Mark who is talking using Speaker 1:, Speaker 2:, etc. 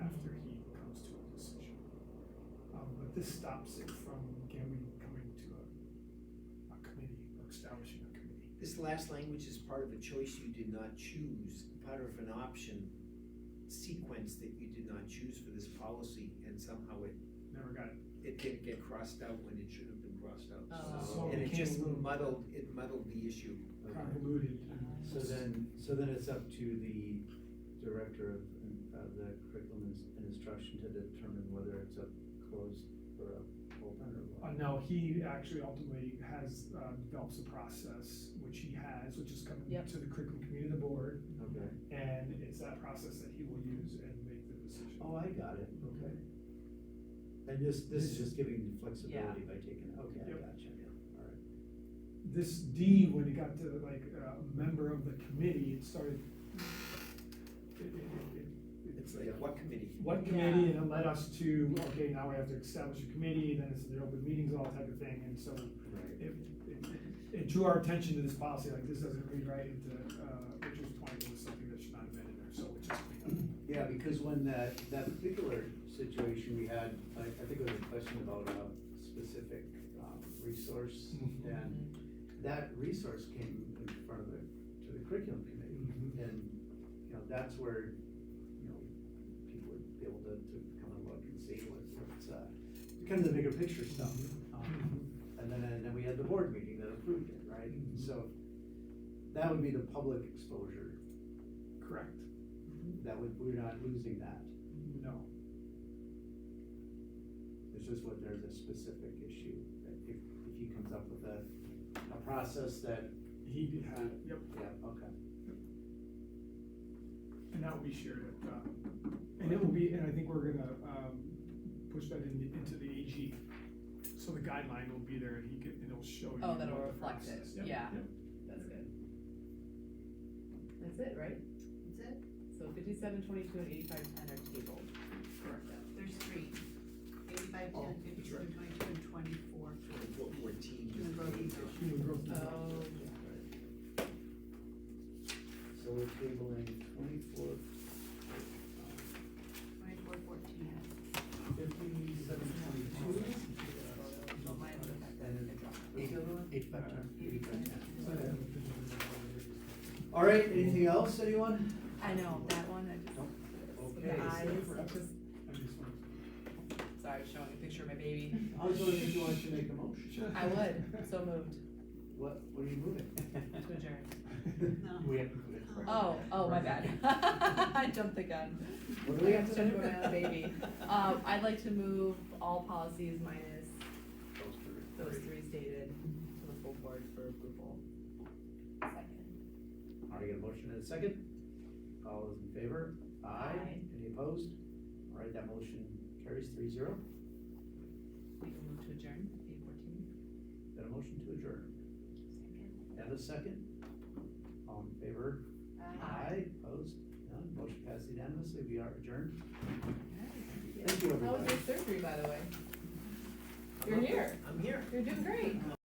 Speaker 1: Um, but this stops it from Gary coming to a, a committee, or establishing a committee.
Speaker 2: This last language is part of a choice you did not choose, part of an option sequence that you did not choose for this policy, and somehow it,
Speaker 1: Never got it.
Speaker 2: it didn't get crossed out when it should have been crossed out.
Speaker 1: So
Speaker 2: And it
Speaker 1: became a
Speaker 2: just
Speaker 1: little
Speaker 2: muddled, it muddled the issue.
Speaker 1: Convoluted. and-
Speaker 3: So then, so then it's up to the director of, of the curriculum ins- and instruction to determine whether it's a closed or a open or
Speaker 1: Uh,
Speaker 3: what?
Speaker 1: no, he actually ultimately has, uh, develops a process, which he has, which is coming
Speaker 4: Yep.
Speaker 1: to the curriculum committee of the board,
Speaker 3: Okay,
Speaker 1: and it's that process that he will use and make the decision.
Speaker 3: oh, I got it, okay. And this, this is just giving flexibility by taking, okay, I
Speaker 1: Yep.
Speaker 3: gotcha, all right.
Speaker 1: This D, when it got to like, uh, a member of the committee, it started. it- it- it- it-
Speaker 2: It's like, what committee?
Speaker 1: one committee, and it led us to, okay, now we have to establish a committee, then it's the open meetings, all type of thing, and so
Speaker 3: Right.
Speaker 1: it, it- it drew our attention to this policy, like, this doesn't read right into, uh, Rachel's point, it was something that should not have been in there, so it just cleaned up.
Speaker 3: Yeah, because when that, that particular situation we had, I, I think it was a question about a specific, um, resource,
Speaker 1: Mhm.
Speaker 3: and that resource came in front of the, to the curriculum committee,
Speaker 1: Mhm.
Speaker 3: and, you know, that's where, you know, people would be able to, to come and look and see what, what's, uh, kind of the bigger picture stuff.
Speaker 1: Mm-hmm.
Speaker 3: Um, And then, and then we had the board meeting that approved it, right?
Speaker 1: Mhm.
Speaker 3: So, that would be the public exposure,
Speaker 1: Correct,
Speaker 3: that would, we're not losing that.
Speaker 1: no,
Speaker 3: It's just what there's a specific issue, that if, if he comes up with a, a process that,
Speaker 1: he did have, yep,
Speaker 3: yeah, okay.
Speaker 1: and that will be shared at, uh, and it will be, and I think we're gonna, um, push that in, into the AG. So the guideline will be there, and he can, and it'll show you.
Speaker 4: Oh, that'll
Speaker 1: what the
Speaker 4: reflect it,
Speaker 1: process- yep,
Speaker 4: yeah.
Speaker 1: yep.
Speaker 4: That's good. That's it, right?
Speaker 5: That's it,
Speaker 4: So fifty-seven, twenty-two, and eighty-five, ten are tabled.
Speaker 1: Correct.
Speaker 5: there's three, eighty-five,
Speaker 2: Oh,
Speaker 5: ten, fifty-two, and twenty-two, and twenty-four.
Speaker 2: What, what team?
Speaker 5: Human growth ecosystem.
Speaker 1: Human growth design.
Speaker 4: Oh,
Speaker 3: So we're tabling twenty-four,
Speaker 5: Twenty-four, fourteen.
Speaker 3: fifty-seven, twenty-two.
Speaker 5: Well, mine was back then, I dropped it.
Speaker 3: Eight, eight, five, ten. Eight, five,
Speaker 1: So I
Speaker 3: ten.
Speaker 1: have
Speaker 3: Okay.
Speaker 1: a picture of it.
Speaker 3: All right, anything else, anyone?
Speaker 4: I know, that one, I just. The
Speaker 3: Okay, so
Speaker 4: eyes,
Speaker 3: forever.
Speaker 4: just,
Speaker 1: I just want
Speaker 4: sorry, I was showing a picture of my baby.
Speaker 3: I was wondering if you wanted to make a motion.
Speaker 4: I would, so moved
Speaker 3: What, what are you
Speaker 4: to
Speaker 3: moving?
Speaker 4: adjourn.
Speaker 3: We have to do it.
Speaker 4: Oh, oh, my bad. I jumped the gun.
Speaker 3: What do we have
Speaker 4: I
Speaker 3: to
Speaker 4: should've
Speaker 3: do?
Speaker 4: gone out of baby. Um, I'd like to move all policies minus
Speaker 3: Those three.
Speaker 4: those three stated to the full board for approval. Second.
Speaker 3: All right, got a motion and a second. All those in favor?
Speaker 4: Aye.
Speaker 3: Any opposed? All right, that motion carries three zero.
Speaker 4: We can move to adjourn, eight fourteen.
Speaker 3: Got a motion to adjourn. And a second. All in favor? Opposed? None? Motion passed unanimously. We are adjourned. Thank you,
Speaker 4: How was
Speaker 3: everybody.
Speaker 4: your surgery, by the way? You're here.
Speaker 2: I'm here.
Speaker 4: You're doing great.